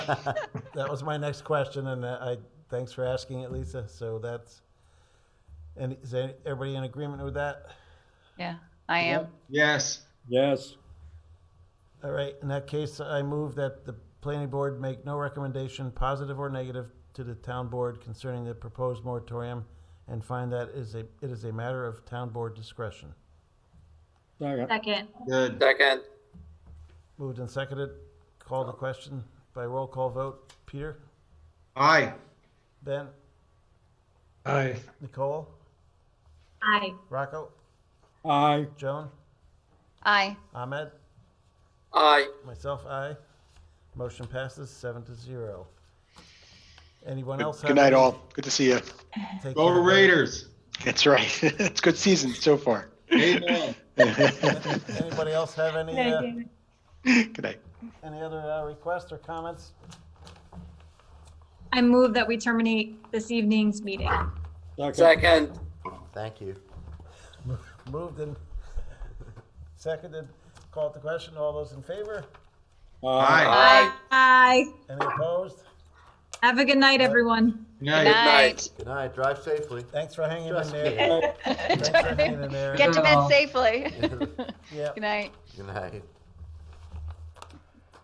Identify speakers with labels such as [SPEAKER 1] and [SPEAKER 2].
[SPEAKER 1] That was my next question, and uh, I, thanks for asking it, Lisa. So that's, and is there- everybody in agreement with that?
[SPEAKER 2] Yeah, I am.
[SPEAKER 3] Yes,
[SPEAKER 4] Yes,
[SPEAKER 1] All right, in that case, I move that the planning board make no recommendation, positive or negative, to the town board concerning the proposed moratorium and find that is a, it is a matter of town board discretion.
[SPEAKER 4] second,
[SPEAKER 5] Second,
[SPEAKER 3] good.
[SPEAKER 6] Second,
[SPEAKER 1] Moved and seconded, called the question by roll call vote. Peter?
[SPEAKER 3] Aye.
[SPEAKER 1] Ben?
[SPEAKER 3] Aye.
[SPEAKER 1] Nicole?
[SPEAKER 5] aye.
[SPEAKER 1] Rocco?
[SPEAKER 4] aye,
[SPEAKER 1] Joan?
[SPEAKER 2] Aye.
[SPEAKER 1] Ahmed?
[SPEAKER 6] aye.
[SPEAKER 1] Myself, aye. Motion passes seven to zero. Anyone else? have
[SPEAKER 7] Good night,
[SPEAKER 1] any-
[SPEAKER 7] all. Good to see you.
[SPEAKER 1] Take
[SPEAKER 3] Go
[SPEAKER 1] care, guys.
[SPEAKER 3] Raiders.
[SPEAKER 7] That's right. It's good season so far.
[SPEAKER 3] Amen.
[SPEAKER 7] Good
[SPEAKER 1] Anybody else have any, uh,
[SPEAKER 7] night.
[SPEAKER 1] any other uh, requests or comments?
[SPEAKER 5] I move that we terminate this evening's meeting.
[SPEAKER 4] second,
[SPEAKER 6] Second,
[SPEAKER 8] Thank you.
[SPEAKER 1] Moved and seconded, called the question, all those in favor?
[SPEAKER 4] aye.
[SPEAKER 3] Aye.
[SPEAKER 6] aye.
[SPEAKER 5] Aye.
[SPEAKER 1] Any opposed?
[SPEAKER 5] Have a good night, everyone.
[SPEAKER 2] Good
[SPEAKER 3] Good night.
[SPEAKER 2] night.
[SPEAKER 8] Good night, drive safely.
[SPEAKER 1] Thanks for hanging in
[SPEAKER 8] Trust
[SPEAKER 1] there.
[SPEAKER 8] me.
[SPEAKER 1] Thanks for hanging in there.
[SPEAKER 2] Get to bed
[SPEAKER 3] Girl.
[SPEAKER 2] safely.
[SPEAKER 8] Good
[SPEAKER 1] Yeah,
[SPEAKER 2] Good night.
[SPEAKER 8] night.